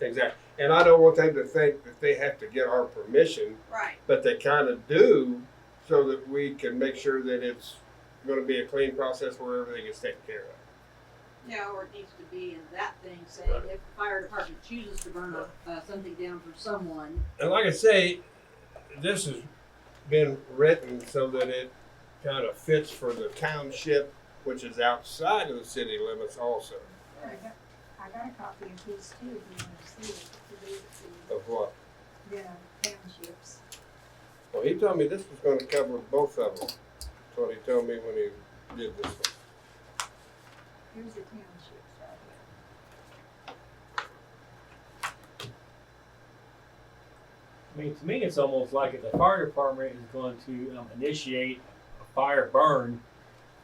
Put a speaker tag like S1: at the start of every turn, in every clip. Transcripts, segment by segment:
S1: Exactly. And I don't want them to think that they have to get our permission,
S2: Right.
S1: but they kind of do so that we can make sure that it's going to be a clean process where everything is taken care of.
S2: Yeah, or it needs to be in that thing saying
S1: Right.
S2: if the fire department chooses to burn a- uh, something down for someone,
S1: And like I say, this has been written so that it kind of fits for the township, which is outside of the city limits also.
S3: I got, I got a copy of these too, if you wanna see it, to read it
S1: Of what?
S3: to, you know, townships.
S1: Well, he told me this was going to cover both of them. That's what he told me when he did this one.
S3: Here's the townships right here.
S4: I mean, to me, it's almost like if the fire department is going to um, initiate a fire burn,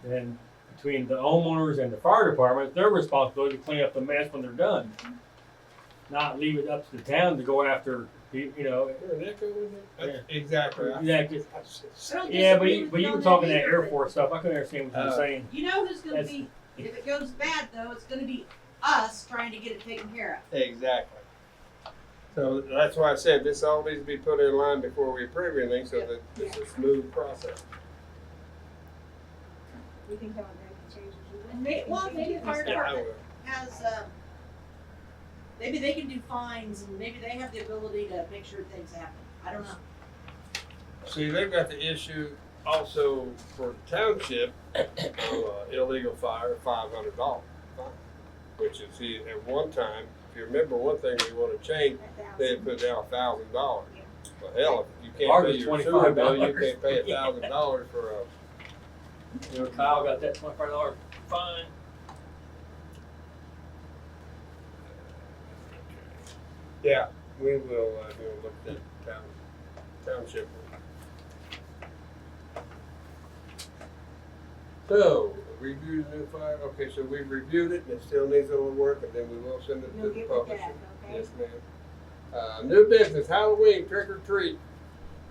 S4: then between the homeowners and the fire department, it's their responsibility to clean up the mess when they're done. Not leave it up to the town to go after, you you know.
S1: Hear an echo in there? That's- Exactly. I-
S4: Yeah, 'cause-
S1: I s-
S2: I don't
S4: yeah, but
S2: disagree
S4: you,
S2: with
S4: but
S2: you
S4: you
S2: on
S4: were talking
S2: that
S4: that Air
S2: either,
S4: Force stuff. I couldn't understand what you
S1: Uh,
S4: were saying.
S2: You know who's gonna
S4: That's-
S2: be, if it goes bad though, it's gonna be us trying to get it taken care
S1: Exactly. So that's why I said this all needs to be put in line before we approve anything so that it's a smooth process.
S3: We can tell them they can change it. We
S2: And may-
S3: can
S2: well,
S3: change
S2: maybe
S3: it.
S2: fire-
S1: Yeah, I will.
S2: of. Has, um, maybe they can do fines and maybe they have the ability to make sure things happen. I don't know.
S1: See, they've got the issue also for township, uh, illegal fire, five hundred dollar fine. Which is, see, at one time, if you remember one thing we wanna change,
S3: A
S1: they had
S3: thousand.
S1: put down a thousand dollars. Well, hell, if you can't
S4: Ours
S1: pay
S4: is
S1: your sewer bill, you
S4: $25.
S1: can't pay a thousand dollars for a,
S4: You know, Kyle got that twenty-five dollar fine.
S1: yeah, we will, uh, go look at town, township. So, review the new fire, okay, so we've reviewed it, and it still needs a little work, and then we will send it to
S3: You'll
S1: the
S3: get with
S1: publisher.
S3: that, okay?
S1: Yes, ma'am. Uh, new business, Halloween trick or treat.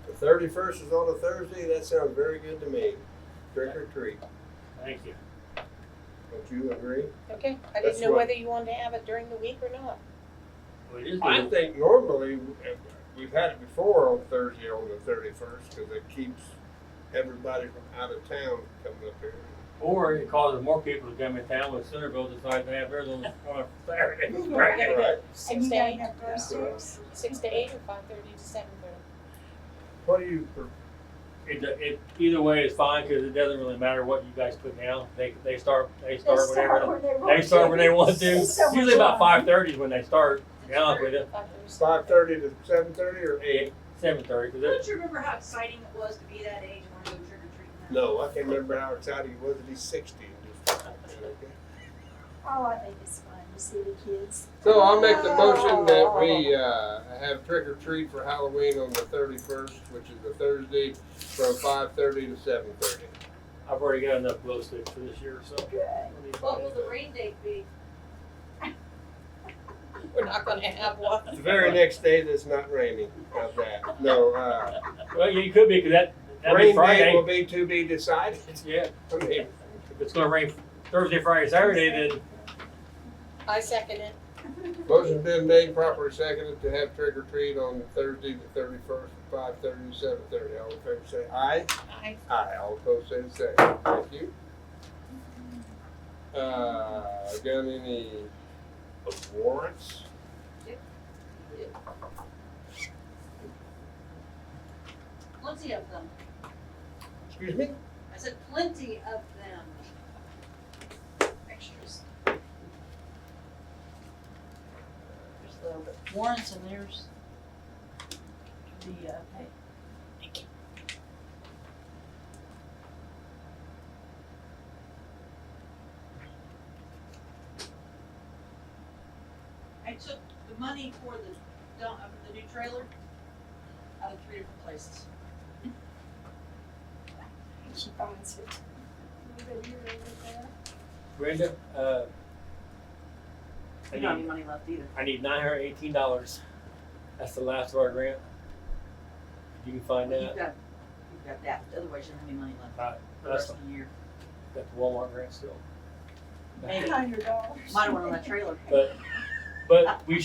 S1: The thirty-first is on a Thursday, that sounds very good to me. Trick or treat,
S4: Thank you.
S1: don't you agree?
S5: Okay, I
S1: That's
S5: didn't know
S1: what-
S5: whether you wanted to have it during the week or not.
S4: Well, it is
S1: I
S4: the-
S1: think normally, uh, we've had it before on Thursday, on the thirty-first, because it keeps everybody from out of town coming up here.
S4: Or it causes more people to come in town when Centerville decides to have uh, theirs on on Saturday.
S5: We're gonna go
S1: Right.
S3: And
S5: six
S3: you
S5: to
S3: gotta
S5: eight,
S3: have those groups.
S5: six to eight or five thirty to seven thirty.
S1: What do you, pre-
S4: It, it, either way is fine, cause it doesn't really matter what you guys put down, they, they start, they
S3: They
S4: start whenever,
S3: where they
S4: they
S3: want
S4: start
S3: to.
S4: when they want to.
S3: It's so much
S4: Usually about
S3: fun.
S4: five thirty is when they start, to be honest with you,
S5: Five thirty to seven
S1: five thirty to seven thirty or eight?
S4: eight, seven thirty, cause it,
S2: Don't you remember how exciting it was to be that age and want to go trick or treating?
S1: No, I can't remember how excited he was, that he's sixty. and just-
S3: Oh, I think it's fun to see the kids.
S1: So I'll make the motion that we, uh, have trick or treat for Halloween on the thirty-first, which is a Thursday, from five thirty to seven thirty.
S4: I've already got enough glow sticks for this year, so.
S3: Good.
S2: What will the rain date be?
S5: We're not gonna have one.
S1: The very next day that's not raining, how's that? No, uh,
S4: Well, you could be, cause that, that'd be
S1: rain day will
S4: Friday,
S1: be to be decided.
S4: yeah,
S1: I mean,
S4: if it's gonna rain Thursday, Friday, Saturday, then
S5: I second it.
S1: Motion been made, properly seconded to have trick or treat on Thursday, the thirty-first, from five thirty to seven thirty. All in favor say aye.
S5: I
S1: Aye. All opposed say the same. Thank you. Uh, got any warrants?
S2: Plenty of them.
S1: Excuse me?
S2: I said plenty of them. Extras. There's the warrants and there's the, uh, pay. I took the money for the dump, uh, for the new trailer out of three different places.
S3: She finds it. Anybody here over there?
S4: Brenda, uh. I
S2: I don't have
S4: need-
S2: any money left either.
S4: I need nine hundred eighteen dollars. That's the last of our grant. If You can find
S2: You've
S4: that.
S2: got, you've got that, otherwise you don't have any money left
S4: Right,
S2: for the
S4: That's
S2: rest
S4: got
S2: of the year.
S4: the Walmart grant still.
S2: Maybe,
S3: Hundred dollars.
S2: might have went on that trailer.
S4: But we